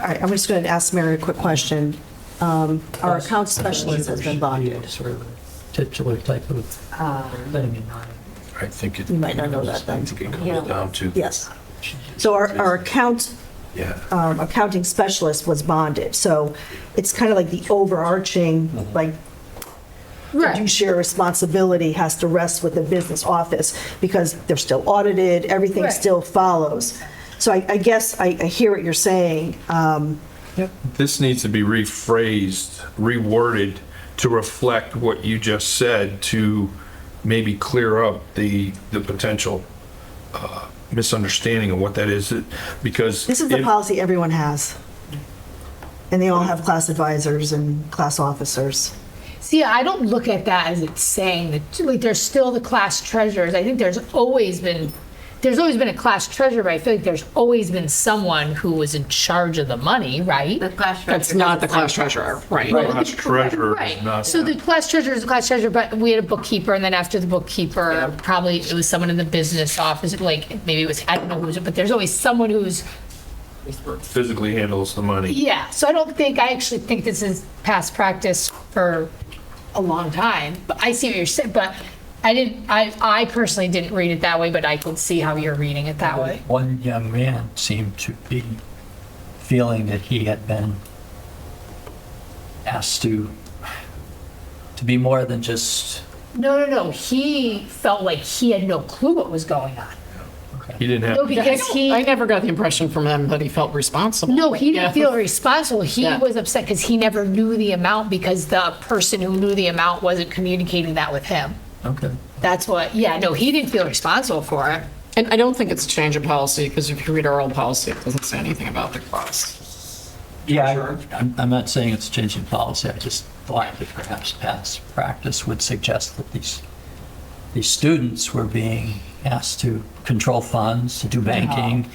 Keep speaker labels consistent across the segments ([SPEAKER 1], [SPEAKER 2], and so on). [SPEAKER 1] All right, I'm just going to ask Mary a quick question. Um, Our account specialist has been Uh, locked in.
[SPEAKER 2] Sort of a titular type of thing.
[SPEAKER 3] I think it.
[SPEAKER 1] You might not know that then.
[SPEAKER 3] I think it
[SPEAKER 4] Yeah.
[SPEAKER 3] comes down to.
[SPEAKER 1] Yes. So our, our account,
[SPEAKER 3] Yeah.
[SPEAKER 1] um, accounting specialist was bonded, so it's kind of like the overarching, like,
[SPEAKER 4] Right.
[SPEAKER 1] fiduciary responsibility has to rest with the business office because they're still audited, everything
[SPEAKER 4] Right.
[SPEAKER 1] still follows. So I, I guess I, I hear what you're saying. Um,
[SPEAKER 5] This needs to be rephrased, reworded to reflect what you just said to maybe clear up the, the potential uh, misunderstanding of what that is, It- because.
[SPEAKER 1] This is the
[SPEAKER 5] if-
[SPEAKER 1] policy everyone has. And they all have class advisors and class officers.
[SPEAKER 4] See, I don't look at that as it's saying that, like, there's still the class treasurers. I think there's always been, there's always been a class treasurer, but I feel like there's always been someone who was in charge of the money, right?
[SPEAKER 6] The class treasurer.
[SPEAKER 7] That's not the
[SPEAKER 6] doesn't
[SPEAKER 7] class
[SPEAKER 6] sign it.
[SPEAKER 7] treasurer, right?
[SPEAKER 5] Class treasurer is
[SPEAKER 4] Right.
[SPEAKER 5] not.
[SPEAKER 4] So the class treasurer is the class treasurer, but we had a bookkeeper, and then after the bookkeeper, probably it was someone in the business office, like maybe it was, I don't know who was, but there's always someone who's,
[SPEAKER 5] Physically handles the money.
[SPEAKER 4] yeah. So I don't think, I actually think this is past practice for a long time. But I see what you're saying, but I didn't, I, I personally didn't read it that way, but I can see how you're reading it that way.
[SPEAKER 2] One young man seemed to be feeling that he had been asked to, to be more than just,
[SPEAKER 4] No, no, no. He felt like he had no clue what was going on.
[SPEAKER 5] He didn't have.
[SPEAKER 4] No, because he.
[SPEAKER 7] I never got the impression from him that he felt responsible.
[SPEAKER 4] No, he didn't
[SPEAKER 7] Yeah.
[SPEAKER 4] feel responsible. He
[SPEAKER 7] Yeah.
[SPEAKER 4] was upset because he never knew the amount because the person who knew the amount wasn't communicating that with him.
[SPEAKER 2] okay.
[SPEAKER 4] That's what, yeah, no, he didn't feel responsible for it.
[SPEAKER 7] And I don't think it's a change of policy, because if you read our old policy, it doesn't say anything about the class.
[SPEAKER 2] Yeah, I- I'm, I'm not saying it's changing policy, I just thought that perhaps past practice would suggest that these, these students were being asked to control funds, to do banking,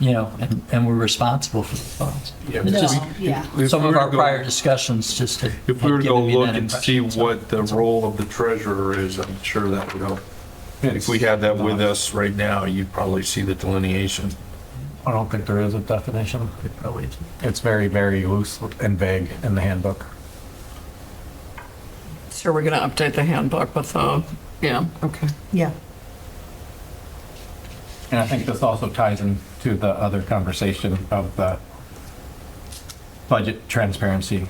[SPEAKER 2] you know, and, and were responsible for the funds. It's just-
[SPEAKER 4] Um, yeah.
[SPEAKER 5] If
[SPEAKER 2] Some
[SPEAKER 5] we
[SPEAKER 2] of
[SPEAKER 5] were
[SPEAKER 2] our
[SPEAKER 5] to go-
[SPEAKER 2] prior discussions just had
[SPEAKER 5] If we were
[SPEAKER 2] had
[SPEAKER 5] to go
[SPEAKER 2] given me that
[SPEAKER 5] look and see
[SPEAKER 2] impression, so-
[SPEAKER 5] what the role of the treasurer is, I'm sure that would help. If we had that with us right now, you'd probably see the delineation.
[SPEAKER 8] I don't think there is a definition.
[SPEAKER 2] It probably isn't.
[SPEAKER 8] It's very, very loose and vague in the handbook.
[SPEAKER 7] So we're going to update the handbook with, uh, yeah, okay.
[SPEAKER 1] Yeah.
[SPEAKER 8] And I think this also ties into the other conversation of the budget transparency,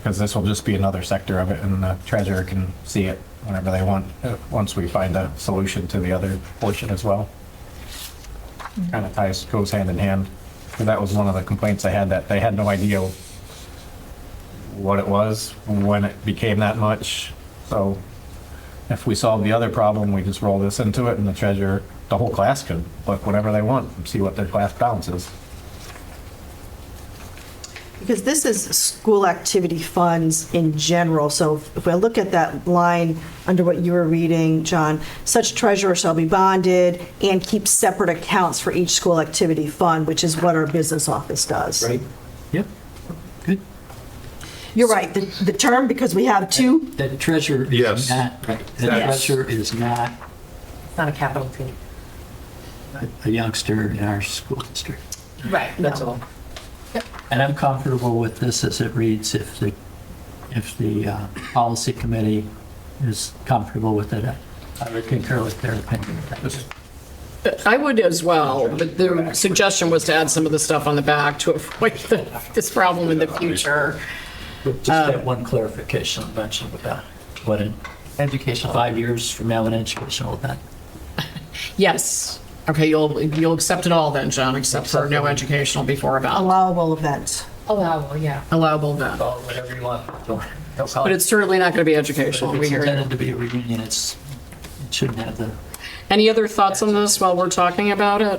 [SPEAKER 8] because this will just be another sector of it, and the treasurer can see it whenever they want, uh, once we find a solution to the other portion as well. Kind of ties, goes hand in hand. 'Cause that was one of the complaints I had, that they had no idea what it was, when it became that much. So if we solve the other problem, we just roll this into it and the treasurer, the whole class could look whenever they want and see what their class balance is.
[SPEAKER 1] Because this is school activity funds in general, so if I look at that line under what you were reading, John, such treasurer shall be bonded and keep separate accounts for each school activity fund, which is what our business office does. Right.
[SPEAKER 2] Yep, good.
[SPEAKER 1] You're right, the, the term, because we have two,
[SPEAKER 2] The treasurer
[SPEAKER 5] Yes.
[SPEAKER 2] is not, right, the
[SPEAKER 5] Yes.
[SPEAKER 2] treasurer is not
[SPEAKER 6] It's not a capital T.
[SPEAKER 2] a- a youngster in our school district.
[SPEAKER 4] Right.
[SPEAKER 6] That's all.
[SPEAKER 2] And I'm comfortable with this as it reads, if the, if the uh, policy committee is comfortable with it. I would concur with their opinion.
[SPEAKER 7] I would as well, but the suggestion was to add some of the stuff on the back to avoid the- this problem in the future.
[SPEAKER 2] Just
[SPEAKER 7] Uh,
[SPEAKER 2] that one clarification I mentioned about what an education, five years from now, an educational event.
[SPEAKER 7] Yes. Okay, you'll, you'll accept it all then, John, except for no educational before about
[SPEAKER 1] allowable events.
[SPEAKER 4] Allowable, Oh, yeah.
[SPEAKER 7] allowable then.
[SPEAKER 2] Call it whatever you want.
[SPEAKER 7] But
[SPEAKER 2] But
[SPEAKER 7] it's certainly not going to be educational.
[SPEAKER 2] If
[SPEAKER 7] We
[SPEAKER 2] it's
[SPEAKER 7] hear you.
[SPEAKER 2] intended to be a reunion, it's, it shouldn't have the
[SPEAKER 7] Any other thoughts on this while we're talking about it?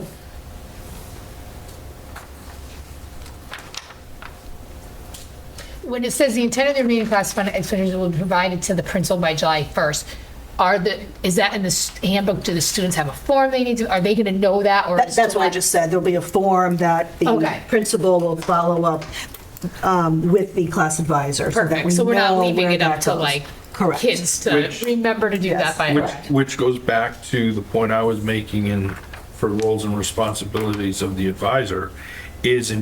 [SPEAKER 4] When it says the intent of the remaining class fund expenditures will be provided to the principal by July 1st, are the, is that in the s- handbook? Do the students have a form they need to, are they going to know that or?
[SPEAKER 1] That- That's what I just said, there'll be a form that the
[SPEAKER 4] Okay.
[SPEAKER 1] principal will follow up um, with the class advisor. so that
[SPEAKER 4] Perfect.
[SPEAKER 1] we
[SPEAKER 4] So we're not
[SPEAKER 1] know
[SPEAKER 4] leaving
[SPEAKER 1] where
[SPEAKER 4] it up
[SPEAKER 1] that
[SPEAKER 4] to
[SPEAKER 1] goes.
[SPEAKER 4] like
[SPEAKER 1] Correct.
[SPEAKER 4] kids to
[SPEAKER 5] Which-
[SPEAKER 4] remember to do
[SPEAKER 1] Yes.
[SPEAKER 4] that by.
[SPEAKER 5] Which, which goes back to the point I was making in, for roles and responsibilities of the advisor, is in